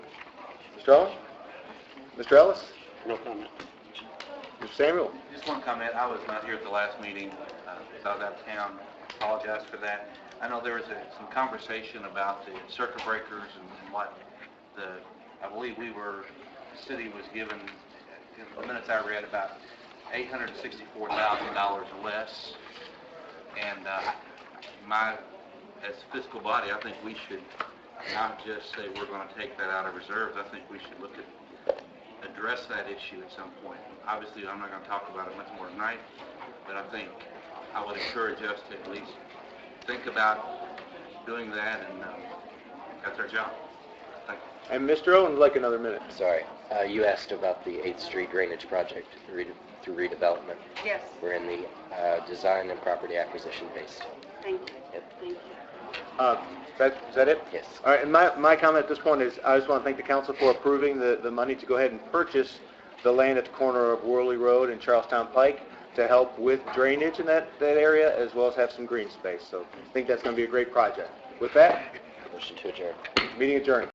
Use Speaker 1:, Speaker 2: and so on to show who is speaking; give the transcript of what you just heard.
Speaker 1: Strong? Mr. Ellis?
Speaker 2: No comment.
Speaker 1: Mr. Samuel?
Speaker 3: Just one comment, I was not here at the last meeting, uh, because I was out of town, apologize for that. I know there was a- some conversation about the circuit breakers and and what the, I believe we were, the city was given, in the minutes I read, about $864,000 less. And uh, my, as fiscal body, I think we should not just say we're going to take that out of reserves, I think we should look at address that issue at some point. Obviously, I'm not going to talk about it much more tonight, but I think I would encourage us to at least think about doing that, and uh, that's our job. Thank you.
Speaker 1: And Mr. Owen would like another minute.
Speaker 4: Sorry, uh, you asked about the 8th Street drainage project rede- through redevelopment.
Speaker 5: Yes,
Speaker 4: We're in the uh, design and property acquisition phase.
Speaker 5: thank you,
Speaker 4: Yep.
Speaker 5: thank you.
Speaker 1: Uh, that, is that it?
Speaker 4: Yes.
Speaker 1: All right, and my, my comment at this point is, I just want to thank the council for approving the, the money to go ahead and purchase the land at the corner of Worley Road and Charlestown Pike to help with drainage in that, that area, as well as have some green space. So I think that's going to be a great project. With that,
Speaker 4: Motion to adjourn.
Speaker 1: meeting adjourned.